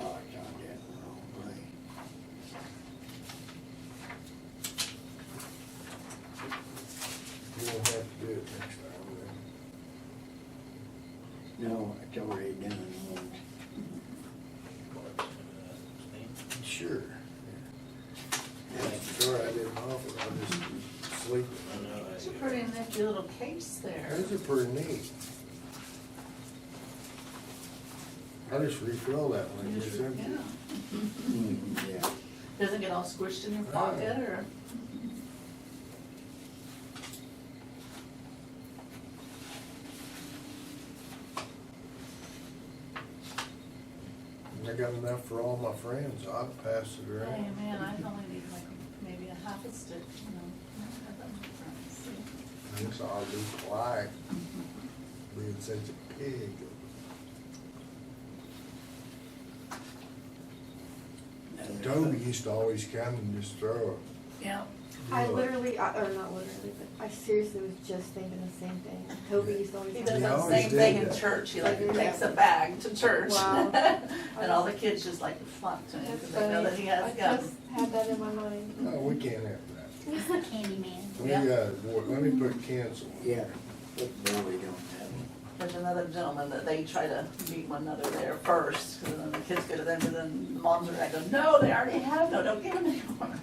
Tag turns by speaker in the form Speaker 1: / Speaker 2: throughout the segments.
Speaker 1: Oh, No, it's already done once.
Speaker 2: uh,
Speaker 1: Sure.
Speaker 2: Sure, I did my office, I just sleep.
Speaker 3: It's a pretty nifty little case there.
Speaker 2: Those are pretty neat. I just refill that one, it's empty.
Speaker 3: Yeah.
Speaker 1: Mm, Yeah.
Speaker 3: Doesn't get all squished in your
Speaker 2: Right.
Speaker 3: pocket or?
Speaker 2: And I got enough for all my friends, I'll pass it
Speaker 3: Hey,
Speaker 2: around.
Speaker 3: Oh, man, I only need like maybe a half a stick, you know. I have that much friends.
Speaker 2: And so I'll be quiet, being such a pig.
Speaker 1: Another-
Speaker 2: Toby used to always come and just throw
Speaker 3: Yeah,
Speaker 2: a.
Speaker 4: I literally, I- or not literally, but I seriously was just thinking the same thing. Toby used to always.
Speaker 3: he
Speaker 4: have
Speaker 3: does
Speaker 2: Yeah, I
Speaker 3: that
Speaker 4: that.
Speaker 2: always
Speaker 3: same thing
Speaker 2: did
Speaker 3: in
Speaker 2: that.
Speaker 3: church, he like
Speaker 4: Yeah.
Speaker 3: takes a bag to church.
Speaker 4: Wow.
Speaker 3: And all the kids just like flunk to him because they know that he has
Speaker 4: I just
Speaker 3: guns.
Speaker 4: had that in my mind.
Speaker 2: No, we can't have that.
Speaker 5: He's the candy man.
Speaker 2: We
Speaker 3: Yeah.
Speaker 2: got, let me put cancel.
Speaker 1: Yeah, but probably don't have one.
Speaker 3: There's another gentleman that they try to meet one another there first, because then the kids go to them, and then the moms are like, no, they already have, no, don't give them anymore.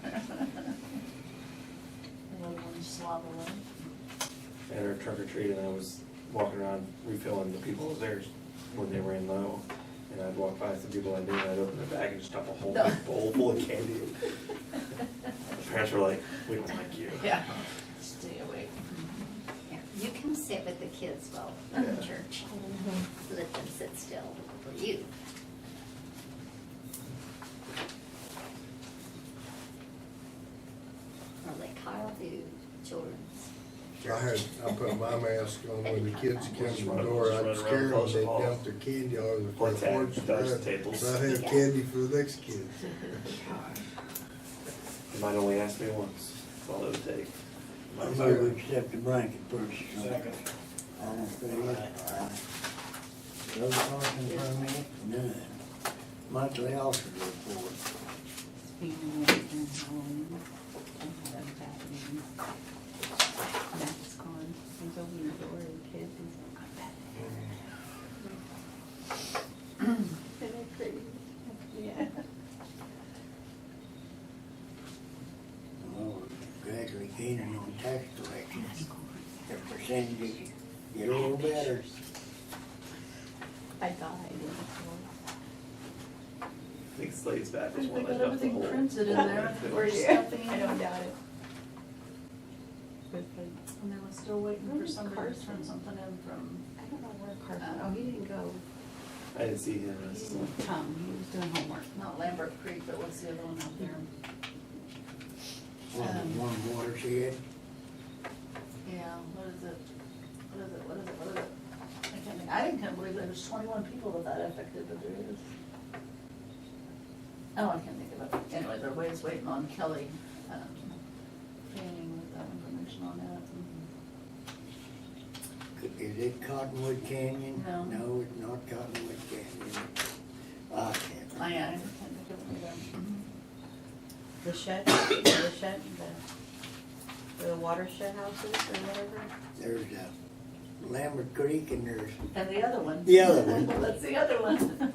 Speaker 3: Another one slobbering.
Speaker 6: at our trunk or treat, and I was walking around refilling the people's theirs when they ran low. And I'd walk by some people I knew, and I'd open the bag and just dump a whole
Speaker 3: No.
Speaker 6: big bowl full of candy. The parents were like, we don't like you.
Speaker 3: Yeah, stay away.
Speaker 5: Yeah, You can sit with the kids while in the church. Let them sit still for you. Or let Kyle do children's.
Speaker 2: I had, I put my mask on when the kids come to the door,
Speaker 6: Just run
Speaker 2: I'd
Speaker 6: around
Speaker 2: scare them,
Speaker 6: across the
Speaker 2: they'd
Speaker 6: hall.
Speaker 2: dump their candy all over the
Speaker 6: Or
Speaker 2: front
Speaker 6: tag,
Speaker 2: porch.
Speaker 6: dice
Speaker 2: and
Speaker 6: tables.
Speaker 2: I'd have
Speaker 5: Yeah.
Speaker 2: candy for the next kid.
Speaker 6: They might only ask me once, that's all it would take.
Speaker 1: I move we accept the blanket purchase.
Speaker 6: Second.
Speaker 1: All in favor? Aye. Road caution permit, none. Monthly officer report.
Speaker 7: Matt's gone, he's over the door, the kid, he's like, I'm back.
Speaker 4: And I crazy.
Speaker 3: Yeah.
Speaker 1: Well, we're Gradually gaining on tax collections. The percentages get a little better.
Speaker 4: I died.
Speaker 6: I think Slade's back was
Speaker 3: They
Speaker 6: one
Speaker 3: got
Speaker 6: that dumped the
Speaker 3: everything
Speaker 6: whole.
Speaker 3: printed in there,
Speaker 6: Yeah.
Speaker 3: or stuffing,
Speaker 4: I don't
Speaker 3: and
Speaker 4: doubt it.
Speaker 7: But, but,
Speaker 3: they were still waiting for
Speaker 7: Where's
Speaker 3: somebody to turn
Speaker 7: Carson?
Speaker 3: something in from,
Speaker 7: I don't know where Carson, oh, he didn't go,
Speaker 6: I didn't see him, I
Speaker 7: he
Speaker 6: just-
Speaker 7: didn't come, he was doing homework.
Speaker 3: not Lambert Creek, but what's the other one out there?
Speaker 1: One, one watershed.
Speaker 3: Yeah, what is it? What is it, what is it, what is it? I can't think, I can't believe there was twenty-one people that that affected, but there is. Oh, I can't think of it. Anyway, they're always waiting on Kelly, um, training with that information on that.
Speaker 1: Is it Cottonwood Canyon?
Speaker 3: No.
Speaker 1: No, it's not Cottonwood Canyon. Ah, I can't.
Speaker 3: Mm-hmm. I, I can't think of it either. Mm-hmm.
Speaker 7: The shed, the shed, the, the watershed houses or whatever.
Speaker 1: There's a Lambert Creek and there's,
Speaker 3: And the other one.
Speaker 1: The other one.
Speaker 3: That's the other one.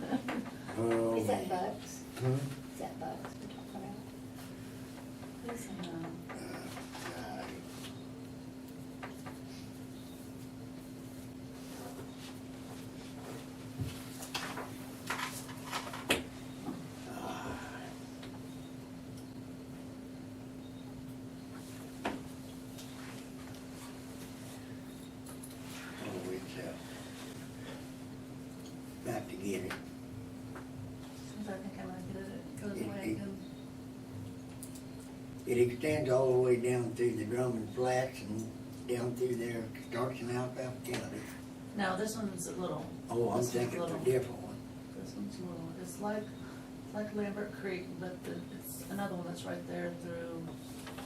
Speaker 1: oh.
Speaker 5: Is that
Speaker 1: man.
Speaker 5: Bugs?
Speaker 1: Hmm?
Speaker 5: Is that Bugs we're talking about?
Speaker 3: Who's in, um,
Speaker 1: Uh, uh, Oh, it's, uh, Got to get it.
Speaker 3: since I think I might get it, it goes
Speaker 1: It-
Speaker 3: away
Speaker 1: it-
Speaker 3: again.
Speaker 1: It extends all the way down through the Drummond Flats and down through there, starts in Alphaba County.
Speaker 3: No, this one's a little.
Speaker 1: Oh, I'm
Speaker 3: this one's
Speaker 1: thinking of a
Speaker 3: little.
Speaker 1: different one.
Speaker 3: This one's a little, it's like, it's like Lambert Creek, but the, it's another one that's right there through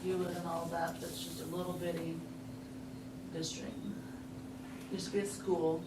Speaker 3: Ewan and all that, that's just a little bitty district. Used to be a school,